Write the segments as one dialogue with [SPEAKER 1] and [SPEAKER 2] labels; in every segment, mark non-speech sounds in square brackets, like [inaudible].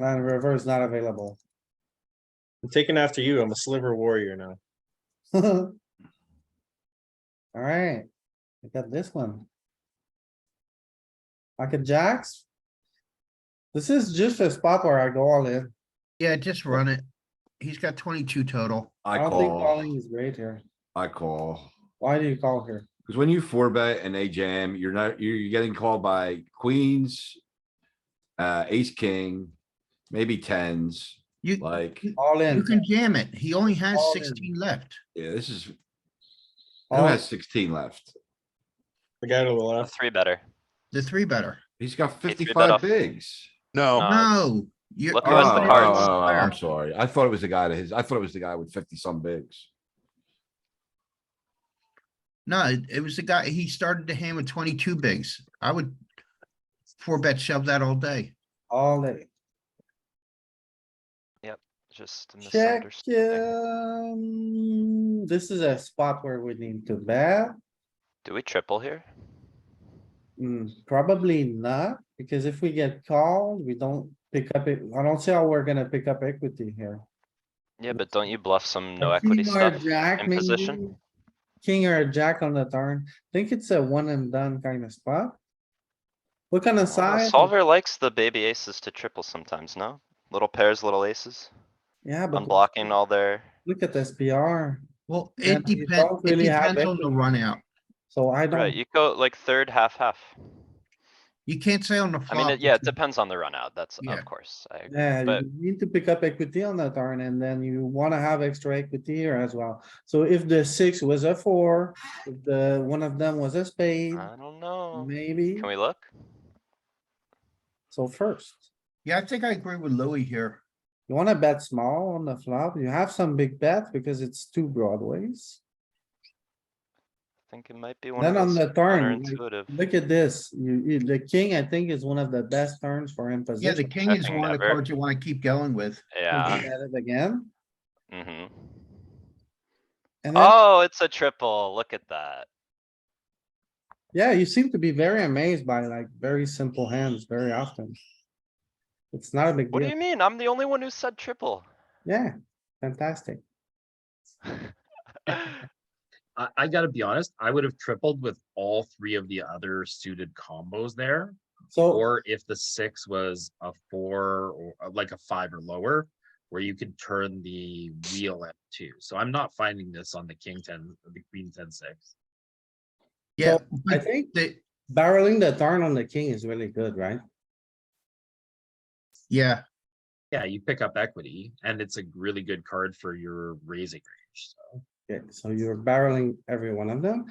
[SPEAKER 1] Land river is not available. [laughs]
[SPEAKER 2] I'm taking after you. I'm a sliver warrior now.
[SPEAKER 1] Alright, we got this one. Pocket jacks. This is just a spot where I go all in.
[SPEAKER 3] Yeah, just run it. He's got twenty-two total.
[SPEAKER 1] I
[SPEAKER 4] I
[SPEAKER 1] don't think calling
[SPEAKER 4] call,
[SPEAKER 1] is great here.
[SPEAKER 4] I call.
[SPEAKER 1] Why do you call here?
[SPEAKER 4] Cause when you four bet and they jam, you're not, you're you're getting called by queens. Uh, ace, king, maybe tens,
[SPEAKER 3] You,
[SPEAKER 4] like,
[SPEAKER 1] All
[SPEAKER 3] you
[SPEAKER 1] in.
[SPEAKER 3] can jam it. He only has
[SPEAKER 1] All in.
[SPEAKER 3] sixteen left.
[SPEAKER 4] yeah, this is, who
[SPEAKER 1] all in.
[SPEAKER 4] has sixteen left?
[SPEAKER 2] The guy to the
[SPEAKER 5] A
[SPEAKER 2] left.
[SPEAKER 5] three better.
[SPEAKER 3] The three better.
[SPEAKER 4] He's got
[SPEAKER 5] three bet
[SPEAKER 4] fifty-five
[SPEAKER 5] off.
[SPEAKER 4] bigs.
[SPEAKER 6] No,
[SPEAKER 5] Uh,
[SPEAKER 1] Ah,
[SPEAKER 3] No. you're-
[SPEAKER 5] look
[SPEAKER 4] Oh,
[SPEAKER 5] who has the
[SPEAKER 4] oh,
[SPEAKER 5] cards.
[SPEAKER 4] oh, oh, I'm
[SPEAKER 3] Square.
[SPEAKER 4] sorry. I thought it was the guy to his, I thought it was the guy with fifty some bigs.
[SPEAKER 3] No, it- it was the guy, he started to hand with twenty-two bigs. I would four bet shove that all day.
[SPEAKER 1] All in.
[SPEAKER 5] Just a
[SPEAKER 1] Check,
[SPEAKER 5] misunderstanding.
[SPEAKER 1] um, this is a spot where we need to bet.
[SPEAKER 5] Do we triple here?
[SPEAKER 1] Hmm, probably not, because if we get called, we don't pick up it. I don't see how we're gonna pick up equity here.
[SPEAKER 5] Yeah, but don't you bluff some no
[SPEAKER 1] A
[SPEAKER 5] equity
[SPEAKER 1] king or a
[SPEAKER 5] stuff?
[SPEAKER 1] jack,
[SPEAKER 5] in position?
[SPEAKER 1] maybe? King or a jack on the turn. Think it's a one and done kind of spot. Look on the
[SPEAKER 5] Well,
[SPEAKER 1] side.
[SPEAKER 5] Uh, Solver likes the baby aces to triple sometimes, no? Little pairs, little aces,
[SPEAKER 1] Yeah, but
[SPEAKER 5] unblocking all their,
[SPEAKER 1] look at SPR.
[SPEAKER 3] Well,
[SPEAKER 1] Yeah,
[SPEAKER 3] it
[SPEAKER 1] but you
[SPEAKER 3] depends,
[SPEAKER 1] don't
[SPEAKER 3] it
[SPEAKER 1] really have
[SPEAKER 3] depends on the run out.
[SPEAKER 1] So I
[SPEAKER 5] right,
[SPEAKER 1] don't,
[SPEAKER 5] you go like third, half, half.
[SPEAKER 3] You can't say on the
[SPEAKER 5] I
[SPEAKER 3] flop.
[SPEAKER 5] mean, it- yeah, it
[SPEAKER 3] which-
[SPEAKER 5] depends on the run out, that's
[SPEAKER 3] Yeah.
[SPEAKER 5] of course, I, agree.
[SPEAKER 1] yeah,
[SPEAKER 5] but-
[SPEAKER 1] you need to pick up equity on the turn and then you wanna have extra equity here as well. So if the six was a four, if the, one of them was a spade,
[SPEAKER 5] I don't know.
[SPEAKER 1] maybe,
[SPEAKER 5] Can we look?
[SPEAKER 1] so first.
[SPEAKER 3] Yeah, I think I agree with Louis here.
[SPEAKER 1] You wanna bet small on the flop, you have some big bets because it's two broadways.
[SPEAKER 5] I think it might be one of
[SPEAKER 1] Then on
[SPEAKER 5] those
[SPEAKER 1] the turn, like,
[SPEAKER 5] counterintuitive.
[SPEAKER 1] Look at this, you, you- the king, I think, is one of the best turns for him
[SPEAKER 3] Yeah, the
[SPEAKER 1] position.
[SPEAKER 3] king is
[SPEAKER 5] Checking
[SPEAKER 3] one of the
[SPEAKER 5] never.
[SPEAKER 3] cards you wanna keep going with.
[SPEAKER 5] Yeah,
[SPEAKER 1] Look at it Again,
[SPEAKER 5] hmm
[SPEAKER 1] and then,
[SPEAKER 5] Oh, it's a triple, look at that.
[SPEAKER 1] yeah, you seem to be very amazed by like very simple hands very often. It's not a big
[SPEAKER 5] What do you
[SPEAKER 1] deal,
[SPEAKER 5] mean? I'm the only one who
[SPEAKER 1] [laughs]
[SPEAKER 5] said triple.
[SPEAKER 1] yeah, fantastic.
[SPEAKER 7] I, I gotta be honest, I would have tripled with all three of the other suited combos there.
[SPEAKER 1] So,
[SPEAKER 7] Or if the six was a four or uh, like a five or lower, where you could turn the wheel at two. So I'm not finding this on the king ten, the queen ten six.
[SPEAKER 3] Yeah,
[SPEAKER 1] So, I
[SPEAKER 3] but
[SPEAKER 1] think
[SPEAKER 3] the,
[SPEAKER 1] barreling the turn on the king is really good, right?
[SPEAKER 3] yeah,
[SPEAKER 7] Yeah, you pick up equity and it's a really good card for your raising range. So
[SPEAKER 1] Okay, so you're barreling every one of them,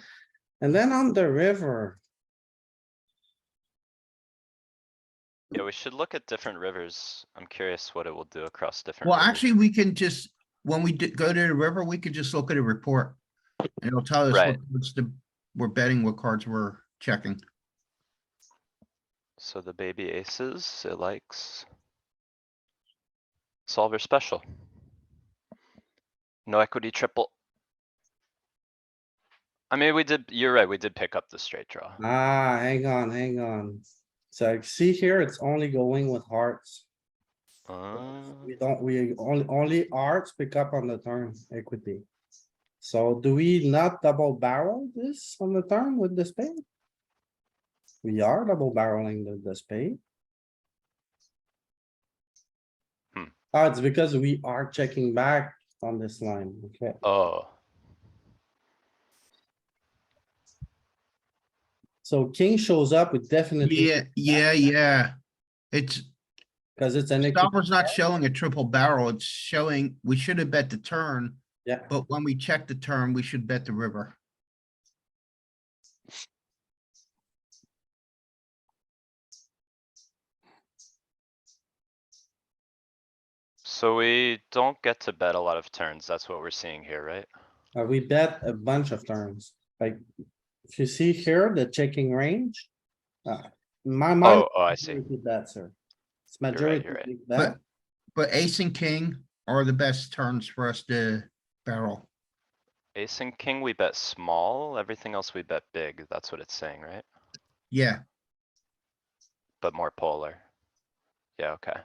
[SPEAKER 1] and then on the river,
[SPEAKER 5] Yeah, we should look at different rivers. I'm curious what it will do across different.
[SPEAKER 3] well,
[SPEAKER 5] rivers.
[SPEAKER 3] actually, we can just, when we d- go to the river, we could just look at a report. And it'll tell us what
[SPEAKER 5] Right.
[SPEAKER 3] cards the, we're betting, what cards we're checking.
[SPEAKER 5] So the baby aces, it likes. Solver special. No equity triple. I mean, we did, you're right, we did pick up the straight draw.
[SPEAKER 1] Ah, hang on, hang on. So like, see here, it's only going with hearts.
[SPEAKER 5] Uh,
[SPEAKER 1] We don't, we only, only hearts pick up on the turn equity. So do we not double barrel this on the turn with the spade? We are double barreling the, the spade.
[SPEAKER 5] Hmm.
[SPEAKER 1] Ah, it's because we are checking back on this line, okay?
[SPEAKER 5] Oh,
[SPEAKER 1] So king shows up with definitely,
[SPEAKER 3] Yeah, yeah, yeah. It's,
[SPEAKER 1] because it's an. equity.
[SPEAKER 3] Stopper's not showing a triple barrel. It's showing, we should have bet the turn.
[SPEAKER 1] Yeah.
[SPEAKER 3] But when we check the turn, we should bet the river.
[SPEAKER 5] so we don't get to bet a lot of turns. That's what we're seeing here, right?
[SPEAKER 1] Uh, we bet a bunch of turns, like, if you see here, the checking range. uh, in My mind.
[SPEAKER 5] Oh, oh,
[SPEAKER 3] [laughs]
[SPEAKER 5] I see.
[SPEAKER 1] majority Bet, sir. It's
[SPEAKER 5] right,
[SPEAKER 1] majority
[SPEAKER 5] you're right.
[SPEAKER 1] big bet,
[SPEAKER 3] But, but ace and king are the best turns for us to barrel.
[SPEAKER 5] Ace and king, we bet small. Everything else we bet big. That's what it's saying, right?
[SPEAKER 3] Yeah,
[SPEAKER 5] But more polar. Yeah, okay.